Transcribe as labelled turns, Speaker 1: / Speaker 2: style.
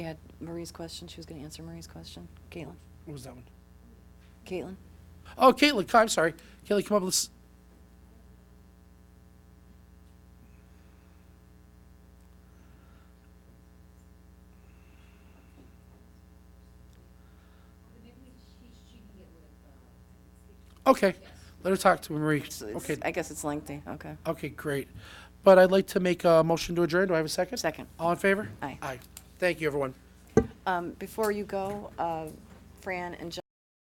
Speaker 1: We had Marie's question, she was going to answer Marie's question. Caitlin?
Speaker 2: What was that one?
Speaker 1: Caitlin?
Speaker 2: Oh, Caitlin, come- I'm sorry. Caitlin, come up with this. Okay, let her talk to Marie.
Speaker 1: So it's-
Speaker 2: Okay,
Speaker 1: I guess it's lengthy, okay.
Speaker 2: okay, great. But I'd like to make a motion to adjourn. Do I have a second?
Speaker 1: Second.
Speaker 2: All in favor?
Speaker 1: Aye.
Speaker 2: Aye. Thank you, everyone.
Speaker 1: Um, Before you go, uh, Fran and John